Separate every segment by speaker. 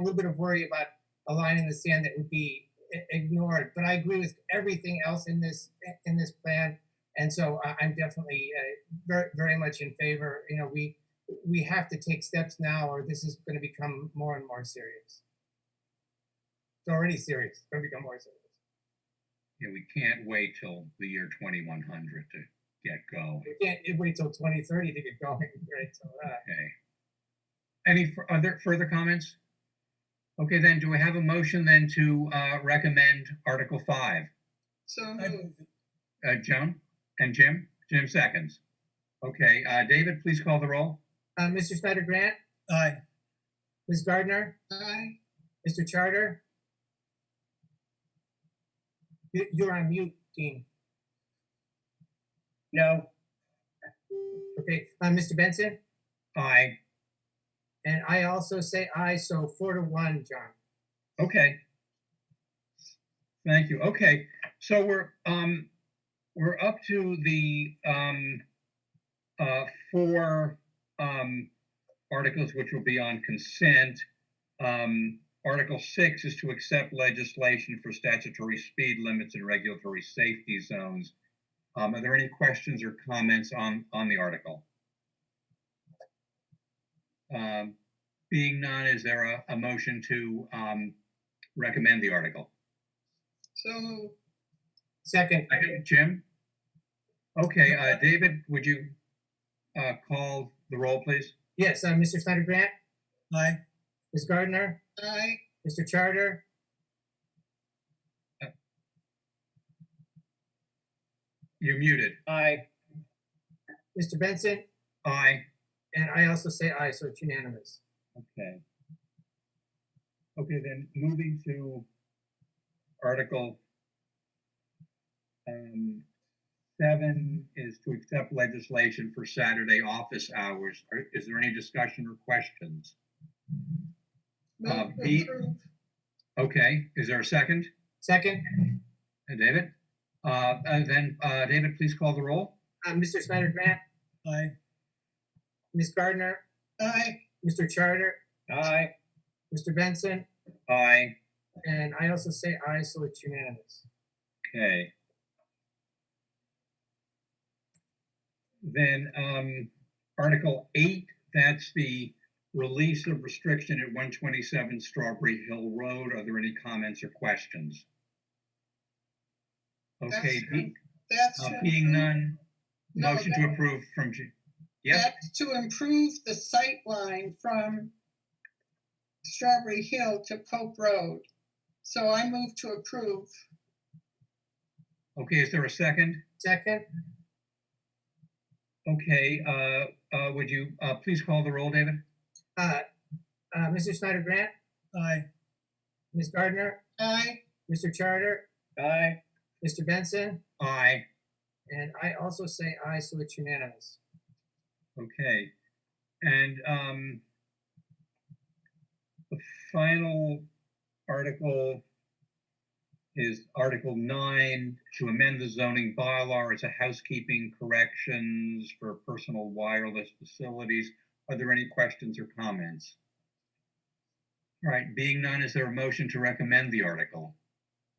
Speaker 1: a little bit of worry about a line in the sand that would be i- ignored. But I agree with everything else in this in this plan, and so I- I'm definitely uh, very very much in favor. You know, we we have to take steps now, or this is going to become more and more serious. It's already serious. It's going to become more serious.
Speaker 2: Yeah, we can't wait till the year twenty-one hundred to get going,
Speaker 1: We can't wait till 2030 to get going, right? So, uh,
Speaker 2: okay? Any fur- other further comments? Okay, then, do I have a motion then to, uh, recommend Article Five?
Speaker 3: So
Speaker 4: I
Speaker 3: moved.
Speaker 4: move it.
Speaker 2: Uh, Joan and Jim? Jim seconds. Okay, uh, David, please call the roll.
Speaker 1: uh, Mr. Snyder Grant,
Speaker 4: Aye.
Speaker 1: Ms. Gardner,
Speaker 3: Aye.
Speaker 1: Mr. Charter. You- You're on mute, Dean.
Speaker 5: No,
Speaker 1: Okay, uh, Mr. Benson?
Speaker 2: Aye.
Speaker 1: And I also say aye, so four to one, John.
Speaker 2: Okay. Thank you. Okay, so we're, um, we're up to the, um, uh, four, um, articles which will be on consent. Um, Article six is to accept legislation for statutory speed limits and regulatory safety zones. Um, are there any questions or comments on, on the article? Um, being none, is there a, a motion to, um, recommend the article?
Speaker 3: So moved.
Speaker 1: Second,
Speaker 2: Second, Jim? Okay, uh, David, would you, uh, call the roll, please?
Speaker 1: yes, uh, Mr. Snyder Grant,
Speaker 4: Aye.
Speaker 1: Ms. Gardner,
Speaker 3: Aye.
Speaker 1: Mr. Charter.
Speaker 2: You're muted.
Speaker 5: I,
Speaker 1: Mr. Benson,
Speaker 2: Aye.
Speaker 1: and I also say aye, so it's unanimous.
Speaker 2: Okay. Okay, then moving to Article um, seven is to accept legislation for Saturday office hours. Are- Is there any discussion or questions? Uh,
Speaker 3: Move
Speaker 2: B.
Speaker 3: to approve.
Speaker 2: Okay, is there a second?
Speaker 1: Second,
Speaker 2: Uh, David? Uh, uh, Then, uh, David, please call the roll.
Speaker 1: uh, Mr. Snyder Grant,
Speaker 4: Aye.
Speaker 1: Ms. Gardner,
Speaker 3: Aye.
Speaker 1: Mr. Charter,
Speaker 5: I,
Speaker 1: Mr. Benson,
Speaker 2: Aye.
Speaker 1: and I also say aye, so it's unanimous.
Speaker 2: Okay. Then, um, Article eight, that's the release of restriction at one twenty-seven Strawberry Hill Road. Are there any comments or questions? Okay,
Speaker 3: That's
Speaker 2: be-
Speaker 3: true. That's
Speaker 2: uh,
Speaker 3: to
Speaker 2: being
Speaker 3: improve-
Speaker 2: none,
Speaker 3: No,
Speaker 2: motion to
Speaker 3: that-
Speaker 2: approve from, Ju- yep,
Speaker 3: That's to improve the sight line from Strawberry Hill to Pope Road. So I move to approve.
Speaker 2: okay, is there a second?
Speaker 1: Second,
Speaker 2: Okay, uh, uh, would you, uh, please call the roll, David?
Speaker 1: uh, uh, Mr. Snyder Grant,
Speaker 4: Aye.
Speaker 1: Ms. Gardner,
Speaker 3: Aye.
Speaker 1: Mr. Charter,
Speaker 5: I,
Speaker 1: Mr. Benson,
Speaker 2: Aye.
Speaker 1: and I also say aye, so it's unanimous.
Speaker 2: Okay, and um, the final article is Article Nine to amend the zoning bylaw. It's a housekeeping corrections for personal wireless facilities. Are there any questions or comments? All right, being none, is there a motion to recommend the article?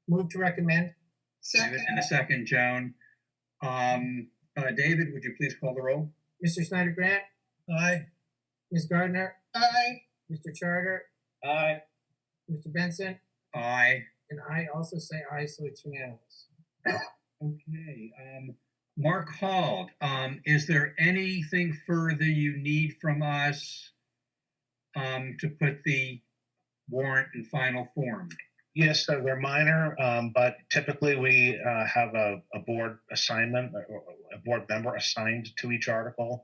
Speaker 1: Move to recommend,
Speaker 2: David,
Speaker 3: Second.
Speaker 2: and a second, Joan. Um, uh, David, would you please call the roll?
Speaker 1: Mr. Snyder Grant,
Speaker 4: Aye.
Speaker 1: Ms. Gardner,
Speaker 3: Aye.
Speaker 1: Mr. Charter,
Speaker 5: I,
Speaker 1: Mr. Benson,
Speaker 2: Aye.
Speaker 1: and I also say aye, so it's unanimous.
Speaker 2: Okay, um, Mark Hall, um, is there anything further you need from us? Um, to put the warrant in final form?
Speaker 6: Yes, they're they're minor, um, but typically we uh, have a, a board assignment, or- or a board member assigned to each article.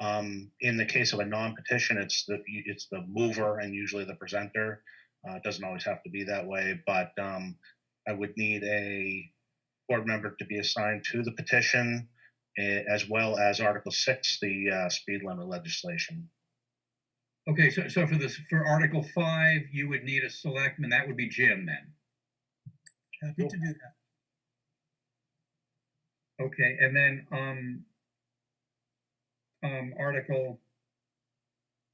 Speaker 6: Um, in the case of a non-petition, it's the, it's the mover and usually the presenter. Uh, it doesn't always have to be that way, but, um, I would need a board member to be assigned to the petition eh, as well as Article Six, the, uh, speed limit legislation.
Speaker 2: Okay, so, so for this, for Article Five, you would need a selectman, that would be Jim then.
Speaker 4: Happy to do that.
Speaker 2: Okay, and then, um, um, Article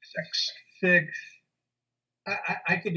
Speaker 6: Six.
Speaker 2: six I, I, I could